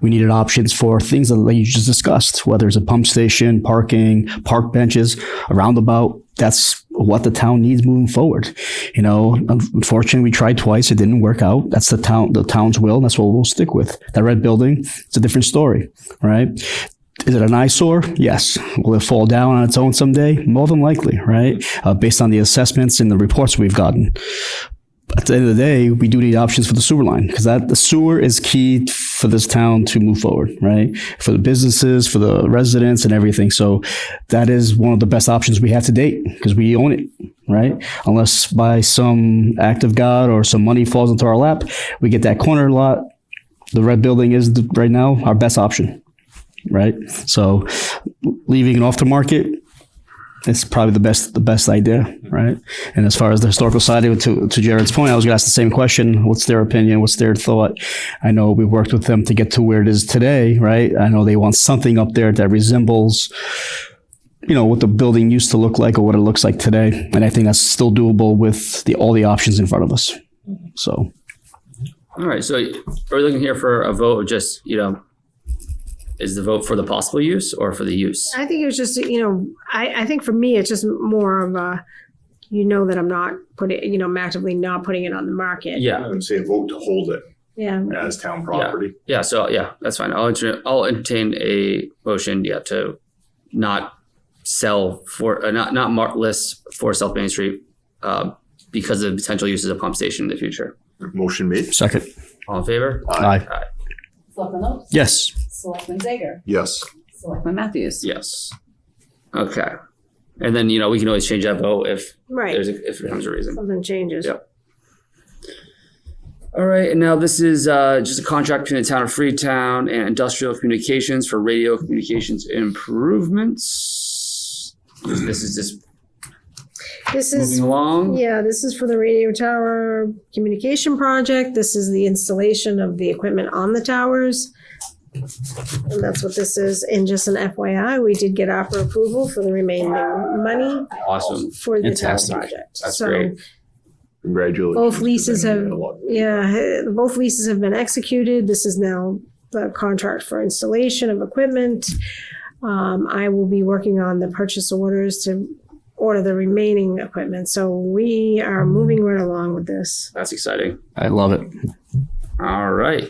We needed options for things that you just discussed, whether it's a pump station, parking, park benches, a roundabout. That's what the town needs moving forward. You know, unfortunately, we tried twice. It didn't work out. That's the town, the town's will. And that's what we'll stick with. That red building, it's a different story, right? Is it an eyesore? Yes. Will it fall down on its own someday? More than likely, right? Uh, based on the assessments and the reports we've gotten at the end of the day, we do need options for the sewer line because that the sewer is key for this town to move forward, right? For the businesses, for the residents, and everything. So that is one of the best options we have to date because we own it, right? Unless by some act of God or some money falls into our lap, we get that corner lot. The red building is the, right now our best option, right? So leaving it off the market it's probably the best the best idea, right? And as far as the historical side, to to Jared's point, I was going to ask the same question: What's their opinion? What's their thought? I know we worked with them to get to where it is today, right? I know they want something up there that resembles, you know, what the building used to look like or what it looks like today, and I think that's still doable with the all the options in front of us. So All right, so are we looking here for a vote of just, you know, is the vote for the possible use or for the use? I think it was just, you know, I, I think for me, it's just more of a, you know, that I'm not putting, you know, I'm actively not putting it on the market. Yeah, I would say vote to hold it Yeah. as town property. yeah, so, yeah, that's fine. I'll entertain, I'll entertain a motion, yeah, to not sell for, uh, not, not mark list for South Main Street, uh, because of potential use as a pump station in the future. Motion made. second, All in favor? aye, Selectman Lopes. yes, Selectman Zager. Yes. Selectman Matthews. Yes. Okay. And then, you know, we can always change that vote if Right. there's, a- if it becomes a reason. Something changes. Yeah. All right, and now this is uh, just a contract between the town of Freetown and Industrial Communications for radio communications improvements. This is just This moving is, along. yeah, this is for the radio tower communication project. This is the installation of the equipment on the towers. And that's what this is. And just an FYI, we did get offer approval for the remaining money Awesome. for the tower Um, Fantastic. project. That's So great. Congratulations. Both leases Because I have- had a lot- Yeah, uh, both leases have been executed. This is now the contract for installation of equipment. Um, I will be working on the purchase orders to order the remaining equipment. So we are moving right along with this. That's exciting. I love it. All right.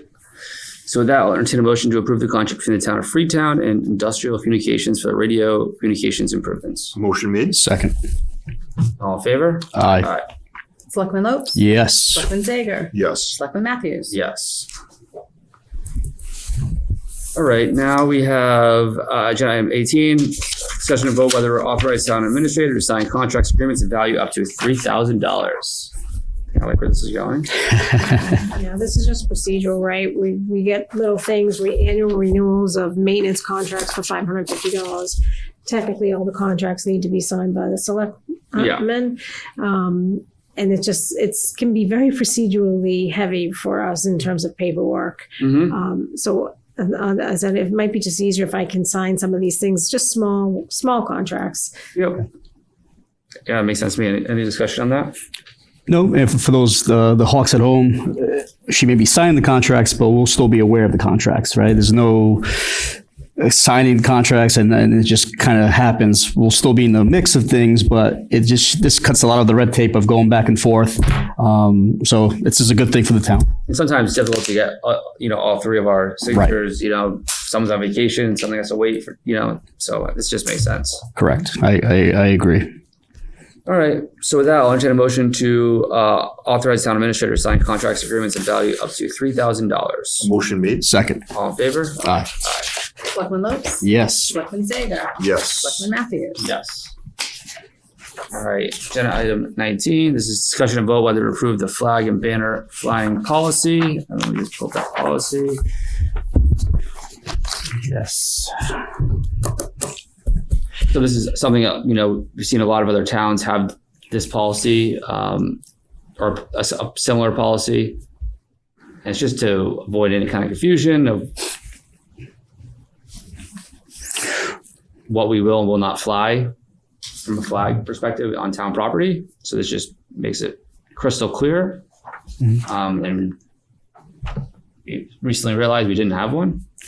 So with that, I'll entertain a motion to approve the contract between the town of Freetown and Industrial Communications for radio communications improvements. Motion made. Second, All in favor? aye, Selectman Lopes. yes, Selectman Zager. Yes. Selectman Matthews. Yes. All right, now we have uh, agenda item 18, discussion and vote whether we're authorized town administrator to sign contracts, agreements of value up to $3,000. I like where this is going. Yeah, this is just procedural, right? We, we get little things, we annual renewals of maintenance contracts for five hundred fifty dollars. Technically, all the contracts need to be signed by the Yeah. selectmen. Um, and it just, it's, can be very procedurally heavy for us in terms of paperwork. Mhm. Um, so uh, as I said, it might be just easier if I can sign some of these things, just small, small contracts. Yep. Yeah, makes sense to me. Any- Any discussion on that? No, and for- for those uh, the Hawks at home, uh, she may be signing the contracts, but we'll still be aware of the contracts, right? There's no uh, signing contracts, and then it just kind of happens. We'll still be in the mix of things, but it just this cuts a lot of the red tape of going back and forth. Um, so this is a good thing for the town. And sometimes it's difficult to get, uh, you know, all three of our signatures, you know, someone's on vacation, something has to wait for, you know, so this just makes sense. Correct. I I, I agree. All right. So with that, I'll entertain a motion to uh, authorize town administrator to sign contracts, agreements, and value up to three thousand dollars. Motion made. Second, All in favor? aye, Selectman Lopes. yes, Selectman Zager. Yes. Selectman Matthews. Yes. All right. Agenda item nineteen. This is discussion and vote whether to approve the flag and banner flying policy. And let me just pull up that policy. yes. So this is something uh, you know we've seen a lot of other towns have this policy um, or a, s- a similar policy. And it's just to avoid any kind of confusion of what we will and will not fly from a flag perspective on town property. So this just makes it crystal clear. Um, and we recently realized we didn't have one.